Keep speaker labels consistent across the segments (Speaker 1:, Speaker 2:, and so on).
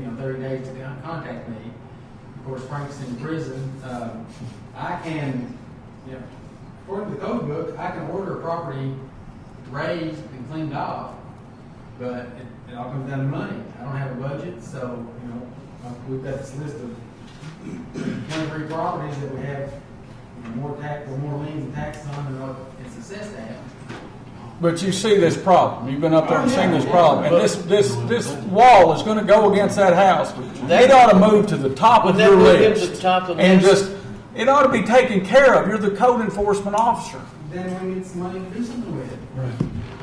Speaker 1: you know, thirty days to con- contact me. Of course, Frank's in prison, um, I can, you know, according to the code book, I can order a property raised and cleaned off, but it, it all comes down to money. I don't have a budget, so, you know, uh, we've got this list of twenty-three properties that we have you know, more tax, or more liens and taxes on than what it's assessed at.
Speaker 2: But you see this problem. You've been up there and
Speaker 1: Oh,
Speaker 2: seen
Speaker 1: yeah,
Speaker 2: this
Speaker 1: yeah.
Speaker 2: problem. And this, this, this wall is gonna go against that house. They ought to move to the top
Speaker 3: Would
Speaker 2: of
Speaker 3: that
Speaker 2: your
Speaker 3: move it to
Speaker 2: list.
Speaker 3: the top of the
Speaker 2: And
Speaker 3: list?
Speaker 2: just, it ought to be taken care of. You're the code enforcement officer.
Speaker 1: Then we need some money to do something with it.
Speaker 4: Right.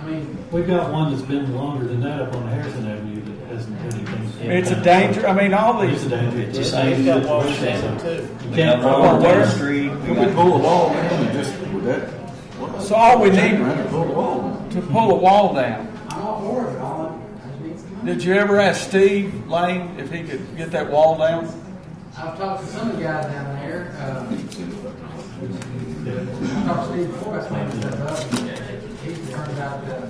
Speaker 1: I mean,
Speaker 4: We've got one that's been longer than that up on Harrison Avenue that hasn't done anything.
Speaker 2: It's a danger, I mean, all
Speaker 4: It's a
Speaker 2: these,
Speaker 4: danger.
Speaker 3: It's just like- You've got walls down, too.
Speaker 4: You
Speaker 5: They got
Speaker 4: can't-
Speaker 5: roads down
Speaker 2: where?
Speaker 5: the street. We
Speaker 6: We could
Speaker 5: got-
Speaker 6: pull the wall down and just, would that? what?
Speaker 2: So all we
Speaker 6: Turn
Speaker 2: need-
Speaker 6: around and Pull the wall down.
Speaker 2: to pull a wall down.
Speaker 1: I'm all for it, all, I just need some money.
Speaker 2: Did you ever ask Steve Lane if he could get that wall down?
Speaker 1: I've talked to some of the guys down there, um, I talked to Steve before I cleaned stuff up. He turned out, uh,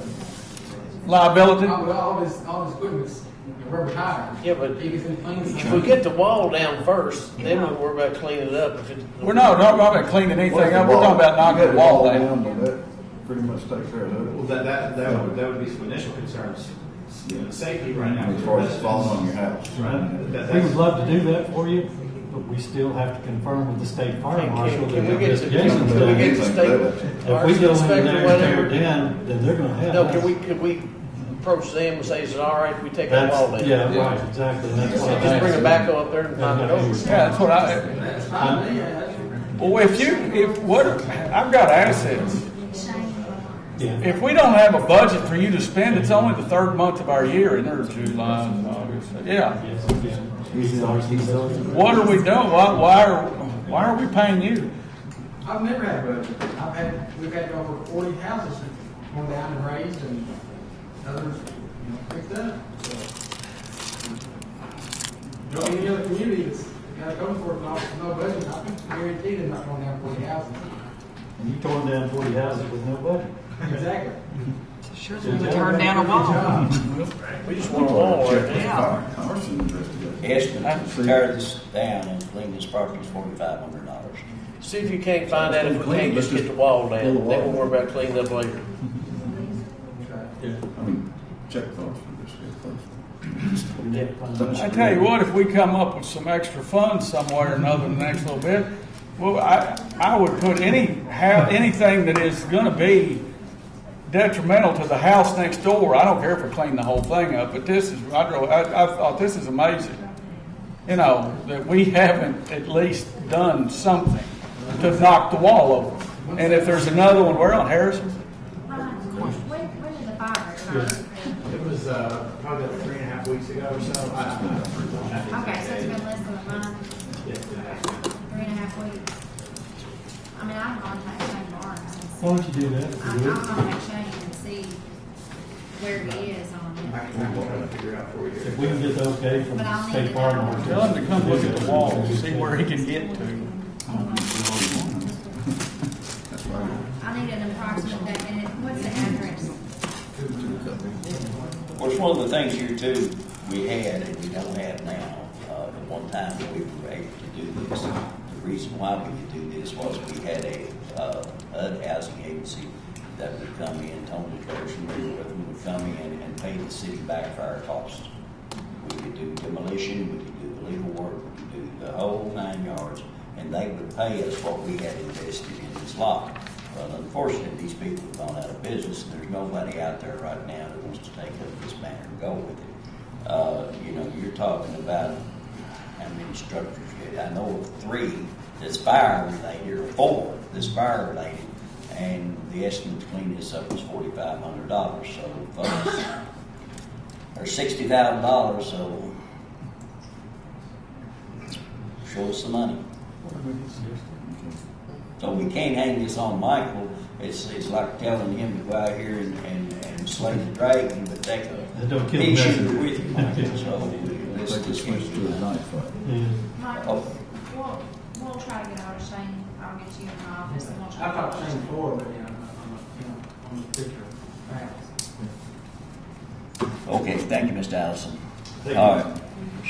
Speaker 2: Liability?
Speaker 1: all, all this, all this equipment's rubber tires.
Speaker 3: Yeah, but-
Speaker 1: He gets them clean.
Speaker 3: If we get the wall down first, then we'll worry about cleaning it up. If it,
Speaker 2: We're not, not about cleaning
Speaker 6: What if
Speaker 2: anything
Speaker 6: the
Speaker 2: up. We're
Speaker 6: wall-
Speaker 2: talking about knocking
Speaker 6: you
Speaker 2: the
Speaker 6: got
Speaker 2: wall down.
Speaker 6: Would that pretty much take care of
Speaker 7: Well,
Speaker 6: it?
Speaker 7: that, that, that would, that would be some initial concerns, you know, safety right now.
Speaker 6: As far as falling on your house.
Speaker 4: Right.
Speaker 7: That-
Speaker 4: We would
Speaker 7: that's-
Speaker 4: love to do that for you, but we still have to confirm with the state fire
Speaker 3: Can-
Speaker 4: marshal
Speaker 3: can
Speaker 4: that
Speaker 3: we get to-
Speaker 4: investigation's
Speaker 3: can we
Speaker 4: done.
Speaker 3: get to
Speaker 6: Anything
Speaker 3: state
Speaker 6: better
Speaker 4: If
Speaker 6: than-
Speaker 4: we go in
Speaker 3: inspector,
Speaker 4: there and tear
Speaker 3: whatever?
Speaker 4: it down, then they're gonna have.
Speaker 3: No,
Speaker 4: us.
Speaker 3: can we, can we approach them and say, is it all right if we take the wall
Speaker 4: That's,
Speaker 3: down?
Speaker 4: yeah,
Speaker 2: Yeah.
Speaker 4: right, exactly. And That's what I'm
Speaker 3: Just bring a
Speaker 4: asking.
Speaker 3: backhoe up there and knock it over.
Speaker 2: Yeah, that's what I,
Speaker 1: That's
Speaker 4: Uh,
Speaker 1: fine, yeah, that's.
Speaker 2: Well, if you, if what, I've got assets.
Speaker 4: Yeah.
Speaker 2: If we don't have a budget for you to spend, it's only the third month of our year, and there's July and August. Yeah.
Speaker 4: Yes, yeah. He's ours, he's ours.
Speaker 2: What are we doing? Why, why are, why are we paying you?
Speaker 1: I've never had a budget. I've had, we've had over forty houses torn down and raised and others, you know, picked up, so. You know, any other community that's got a code enforcement officer, no budget, I can guarantee they're not going down forty houses.
Speaker 4: And you torn down forty houses with no budget.
Speaker 1: Exactly.
Speaker 8: Sure, they would turn down a wall.
Speaker 3: We just want a wall right now.
Speaker 6: Fire, Congress investigation.
Speaker 5: Estimate to tear this down and clean this property is forty-five hundred dollars.
Speaker 3: See if you can't find out if we can't just get the wall down. Then we'll worry about cleaning up later.
Speaker 6: I mean, check those for this, get those.
Speaker 2: I tell you what, if we come up with some extra funds somewhere or another in the next little bit, well, I, I would put any, have, anything that is gonna be detrimental to the house next door, I don't care if we clean the whole thing up, but this is, I drove, I, I thought, this is amazing. You know, that we haven't at least done something to knock the wall over. And if there's another one, where on Harrison?
Speaker 9: Ron, when, when did the fire occur?
Speaker 7: It was, uh, probably about three and a half weeks ago or so. I- I-
Speaker 9: Okay, so it's been less than a month, three and a half weeks. I mean, I've gone to Shane Barnes and
Speaker 4: Why don't you do that?
Speaker 9: I'm, I'm gonna make Shane and see where he is on
Speaker 7: I
Speaker 9: it.
Speaker 7: can try to figure out for you.
Speaker 4: If we can get the okay from
Speaker 9: But I'll
Speaker 4: the
Speaker 9: need
Speaker 4: state
Speaker 9: to
Speaker 4: fire
Speaker 9: know.
Speaker 4: marshal.
Speaker 2: Tell him to come look at the wall and see where he can get to.
Speaker 6: That's why we-
Speaker 9: I need an approximate date, and it- what's the address?
Speaker 5: Of course, one of the things here too, we had and we don't have now, uh, at one time that we were able to do this. The reason why we could do this was we had a, uh, HUD housing agency that would come in, Tony Trojan, we were with them, would come in and pay the city back for our costs. We could do demolition, we could do the legal work, we could do the whole nine yards, and they would pay us what we had invested in this lot. But unfortunately, these people have gone out of business, and there's nobody out there right now that wants to take up this matter and go with it. Uh, you know, you're talking about how many structures you had. I know of three that's fire related, or four that's fire related, and the estimate to clean this up was forty-five hundred dollars, so folks, or sixty thousand dollars, so show us the money. So we can't hang this on Michael, it's, it's like telling him to go out here and, and, and slay the dragon, but take
Speaker 4: That don't
Speaker 5: a
Speaker 4: kill
Speaker 5: big
Speaker 4: the
Speaker 5: shooter
Speaker 4: messenger.
Speaker 5: with you, Michael, so
Speaker 6: Take
Speaker 5: let's,
Speaker 6: the
Speaker 5: let's
Speaker 6: switch to a knife uh, fight.
Speaker 4: Yeah.
Speaker 9: Mike,
Speaker 5: Oh.
Speaker 9: we'll, we'll try to get out of Shane, I'll get you in my office and we'll try.
Speaker 1: I've talked to Shane before, but, you know, on the, you know, on the picture. Facts.
Speaker 5: Okay, thank you, Mr. Allison.
Speaker 4: Thank you.
Speaker 5: All right.